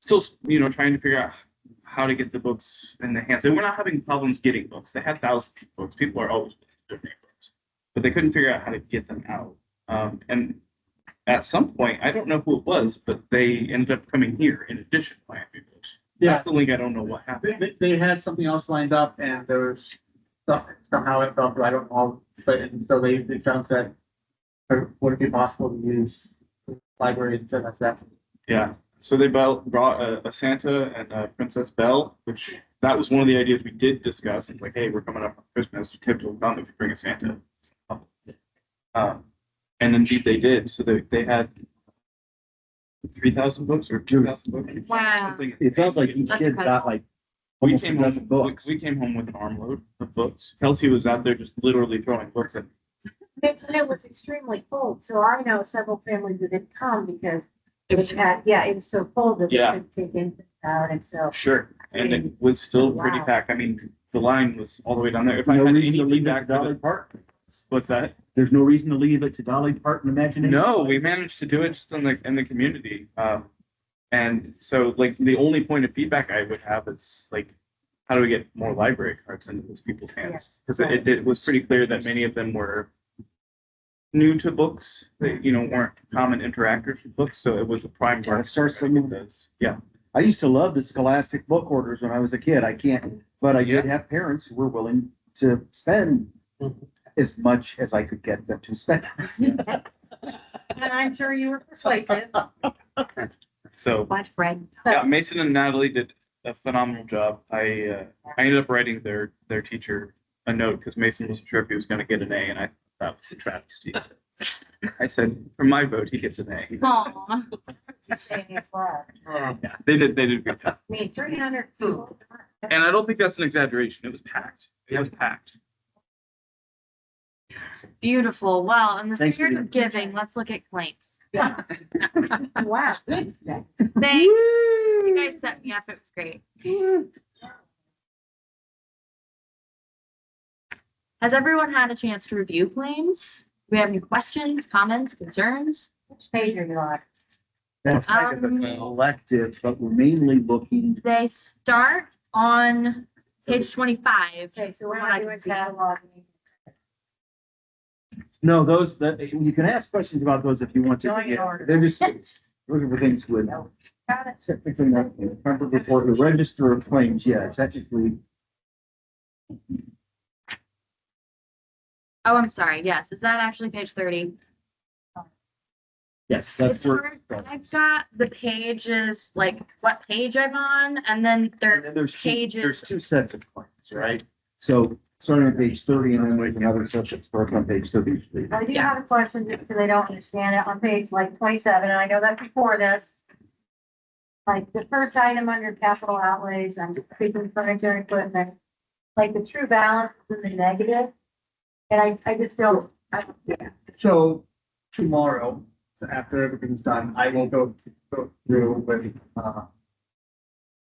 still, you know, trying to figure out how to get the books in the hands. And we're not having problems getting books. They had thousands of books. People are always looking for books, but they couldn't figure out how to get them out. Um, and at some point, I don't know who it was, but they ended up coming here in addition to Miami Books. Yeah, That's the link. I don't know what they, happened. they- they had something else lined up and there was stuff, somehow it fell through, I don't know, but, and so they, they found that or would it be possible to use the library and send us that? Yeah. So they bel- brought a, a Santa and a Princess Belle, which that was one of the ideas we did discuss. It's like, hey, we're coming up on Christmas. Kids will come if you bring a Santa. Um, and indeed they did. So they, they had three thousand books or two thousand books. Wow. Something- It sounds like each That's kid incredible. got like We almost a came home, dozen we, books. we came home with an armload of books. Kelsey was out there just literally throwing books at It it was extremely cold, so I know several families that didn't come because it was, packed. yeah, it was so cold that they Yeah. couldn't take anything out, and so. Sure. And it was still pretty Wow. packed. I mean, the line was all the way down there. If I No had reason any to leave it feedback, to Dolly Park. what's that? There's no reason to leave it to Dolly Parton imagination. No, we managed to do it just in the, in the community. Um, and so like the only point of feedback I would have is like, how do we get more library cards into those people's hands? Cause it, it was pretty clear that many of them were new to books, they, you know, weren't common interactors with books, so it was a prime. Gotta market start for somewhere. those. Yeah, I used to love the Scholastic book orders when I was a kid. I can't, but I did have parents who were willing to spend Mm-hmm. as much as I could get them to spend. And I'm sure you were persuasive. so, Watch Brad. yeah, Mason and Natalie did a phenomenal job. I, uh, I ended up writing their, their teacher a note because Mason wasn't sure if he was gonna get an A and I thought was a travesty. I said, for my vote, he gets an A. Aw. Saying it was. Yeah, They did, they did a good job. I mean, three hundred people. And I don't think that's an exaggeration. It was packed. It was packed. Beautiful. Well, in the Thanks, spirit Bridget. of giving, let's look at claims. Wow. Thanks. You guys set me up. It was great. Has everyone had a chance to review claims? Do we have any questions, comments, concerns? Which page are you on? That's kind of an Um, elective, but we're mainly looking, They start on page twenty-five. Okay, so we're From what not I can doing see. catalog. no, those that, you can ask questions about those if you want to. Going in order. They're just looking for things with Got it. technically not, Comfort report, the register of claims, yeah, technically. Oh, I'm sorry. Yes. Is that actually page thirty? Yes, It's hard. I've got the pages, like what page I'm on, and then And there, then there's two, Pages. there's two sets of claims, right? So starting on page thirty and then with another set that starts on page thirty-three. I do have a question, because I don't understand it, on page like twenty-seven, and I know that before this. Like, the first item under capital outlays, I'm speaking furniture and equipment, like, the true balance is in the negative. And I, I just don't, I, So tomorrow, after everything's done, I will go, go through with, uh,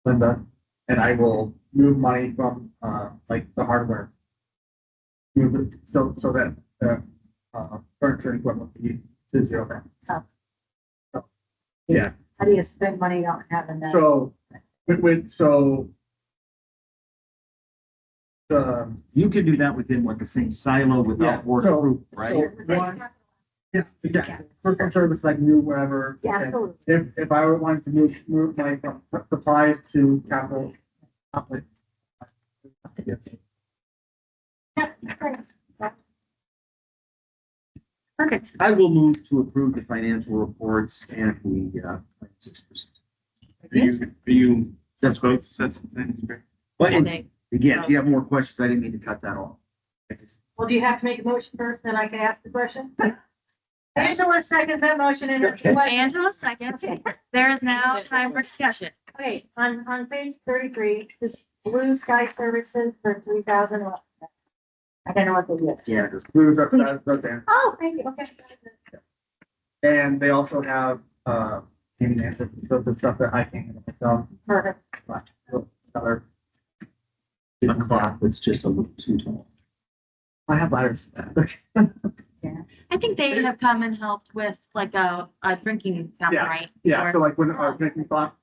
Linda, and I will move money from, uh, like the hardware. Move it, so, so that, the uh, furniture and equipment can be to zero back. how do you spend money you don't have in that? So, with, with, so. The, You can do that within like the same silo Yeah, without work so- group, right? so one- yeah, yeah, personal service like new wherever. Yeah, and- absolutely. If, if I were wanting to move, move my supplies to capital. outlay. perfect. I will move to approve the financial reports and the, uh, claims. Do you, do you, that's great. both sets of things? right? But I it- think. again, if you have more questions, I didn't mean to cut that off. I just- Well, do you have to make a motion first, then I can ask the question? Angela second that motion and it's Okay. question. Angela seconds. There is now time for discussion. Okay, on, on page thirty-three, this blue sky services for three thousand. I don't know what they did. Yeah, just- Move up, that's, that's there. Oh, thank you, okay. And they also have, uh, payment answers, so the stuff that I can, myself. Perfect. other. a clock that's just a little too tall. I have letters. I think they have come and helped with like a, a drinking fountain, right? Yeah, Or- so like when our drinking clock